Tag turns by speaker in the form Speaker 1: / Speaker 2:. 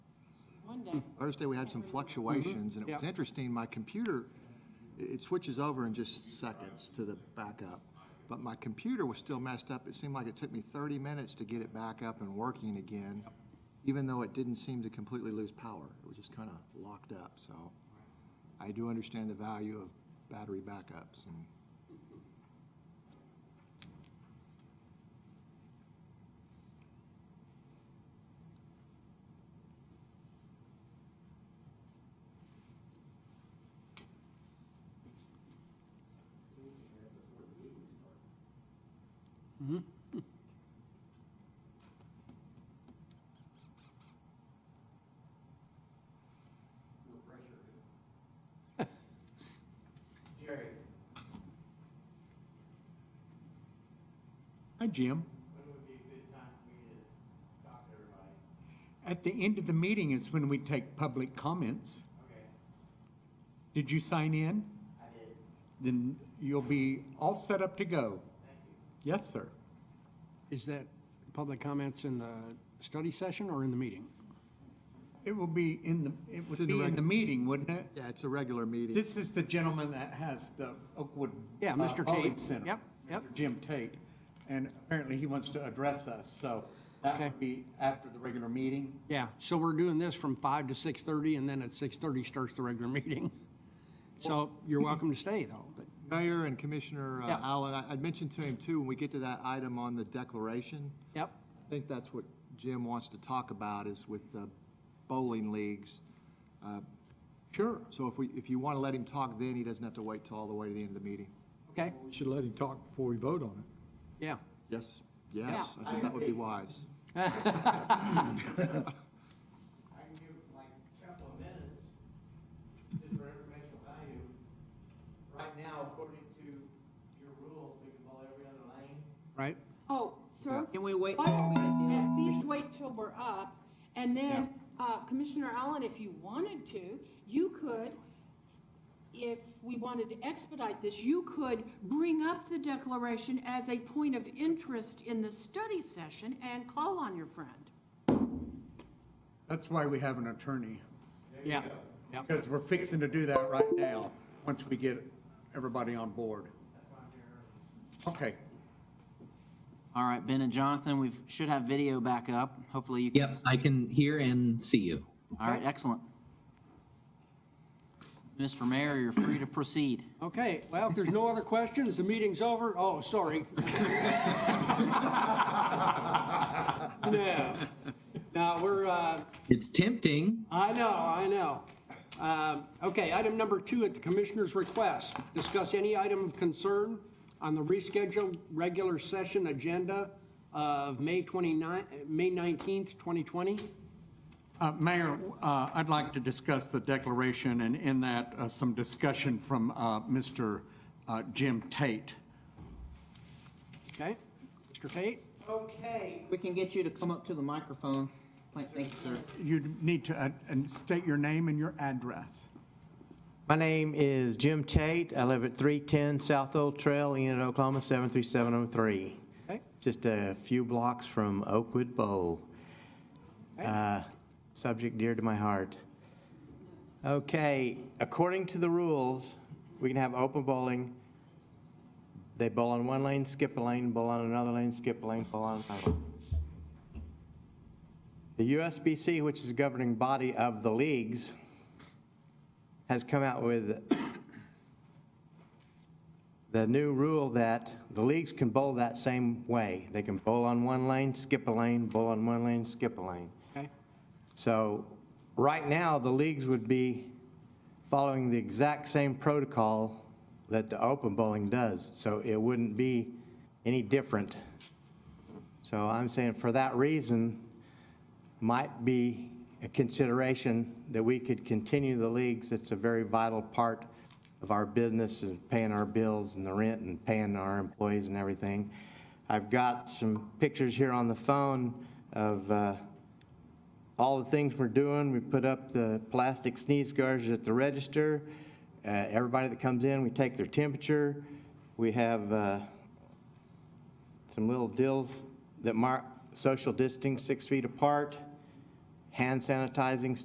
Speaker 1: Monday.
Speaker 2: Thursday, we had some fluctuations, and it was
Speaker 3: Mm-hmm. Yeah.
Speaker 2: interesting, my computer, it it switches over in just seconds to the backup. But my computer was still messed up. It seemed like it took me 30 minutes to get it back up and working again, even though it didn't seem to completely lose power. It was just kind of locked up, so I do understand the value of battery backups and.
Speaker 4: Jerry,
Speaker 3: Hi, Jim.
Speaker 4: when would be a good time for me to talk to everybody?
Speaker 3: At the end of the meeting is when we take public comments.
Speaker 4: Okay,
Speaker 3: Did you sign in?
Speaker 4: I did.
Speaker 3: Then you'll be all set up to go. Yes, sir.
Speaker 5: Is that public comments in the study session or in the meeting?
Speaker 3: It will be in the, it
Speaker 2: in
Speaker 3: would
Speaker 2: the
Speaker 3: be in
Speaker 2: reg-
Speaker 3: the meeting, wouldn't it?
Speaker 2: Yeah, it's a regular meeting.
Speaker 3: This is the gentleman that has the Oakwood.
Speaker 5: Yeah,
Speaker 3: uh,
Speaker 5: Mr. Tate.
Speaker 3: Bowling Center.
Speaker 5: Yep, yep.
Speaker 3: Mr. Jim Tate. And apparently he wants to address us, so that
Speaker 5: Okay.
Speaker 3: would be after the regular meeting.
Speaker 5: Yeah, so we're doing this from five to 6:30, and then at 6:30 starts the regular meeting. So you're welcome to stay, though, but,
Speaker 2: Mayor and Commissioner uh,
Speaker 5: Yeah.
Speaker 2: Allen, I- I'd mentioned to him too, when we get to that item on the declaration,
Speaker 5: yep,
Speaker 2: I think that's what Jim wants to talk about is with the bowling leagues. Uh,
Speaker 3: Sure.
Speaker 2: So if we, if you want to let him talk then, he doesn't have to wait till all the way to the end of the meeting.
Speaker 5: okay,
Speaker 6: We should let him talk before we vote on it.
Speaker 5: yeah.
Speaker 2: Yes, yes, I think that would be wise.
Speaker 4: I can give like a couple of minutes just for informational value. Right now, according to your rules, we can bowl every other lane.
Speaker 5: Right?
Speaker 1: Oh, sir?
Speaker 7: Can we uh, wait?
Speaker 1: Why don't we at least wait till we're up? And then, uh, Commissioner Allen, if you wanted to, you could, if we wanted to expedite this, you could bring up the declaration as a point of interest in the study session and call on your friend.
Speaker 3: That's why we have an attorney.
Speaker 5: Yeah, yep.
Speaker 3: Because we're fixing to do that right now, once we get everybody on board. Okay,
Speaker 7: All right, Ben and Jonathan, we should have video back up. Hopefully you can.
Speaker 8: Yep, I can hear and see you.
Speaker 7: All right, excellent. Mr. Mayor, you're free to proceed.
Speaker 5: Okay, well, if there's no other questions, the meeting's over. Oh, sorry. No, no, we're, uh,
Speaker 8: It's tempting.
Speaker 5: I know, I know. Um, Okay, item number two at the commissioner's request, discuss any item of concern on the rescheduled regular session agenda of May 29, May 19th, 2020.
Speaker 3: Uh, Mayor, uh, I'd like to discuss the declaration, and in that, uh, some discussion from uh, Mr. uh, Jim Tate.
Speaker 5: Okay, Mr. Tate?
Speaker 7: Okay. We can get you to come up to the microphone. Thank you, sir.
Speaker 3: You need to uh, and state your name and your address.
Speaker 9: My name is Jim Tate. I live at 310 South Old Trail, Enid, Oklahoma, 73703.
Speaker 5: Okay.
Speaker 9: Just a few blocks from Oakwood Bowl.
Speaker 5: Okay.
Speaker 9: Uh, Subject dear to my heart. Okay, according to the rules, we can have open bowling. They bowl on one lane, skip a lane, bowl on another lane, skip a lane, bowl on another. lane. The USBC, which is the governing body of the leagues, has come out with the new rule that the leagues can bowl that same way. They can bowl on one lane, skip a lane, bowl on one lane, skip a lane.
Speaker 5: Okay,
Speaker 9: So right now, the leagues would be following the exact same protocol that the open bowling does, so it wouldn't be any different. So I'm saying for that reason, might be a consideration that we could continue the leagues. It's a very vital part of our business and paying our bills and the rent and paying our employees and everything. I've got some pictures here on the phone of, uh, all the things we're doing. We put up the plastic sneeze guards at the register. Uh, Everybody that comes in, we take their temperature. We have uh, some little deals that mark social distancing, six feet apart, hand sanitizing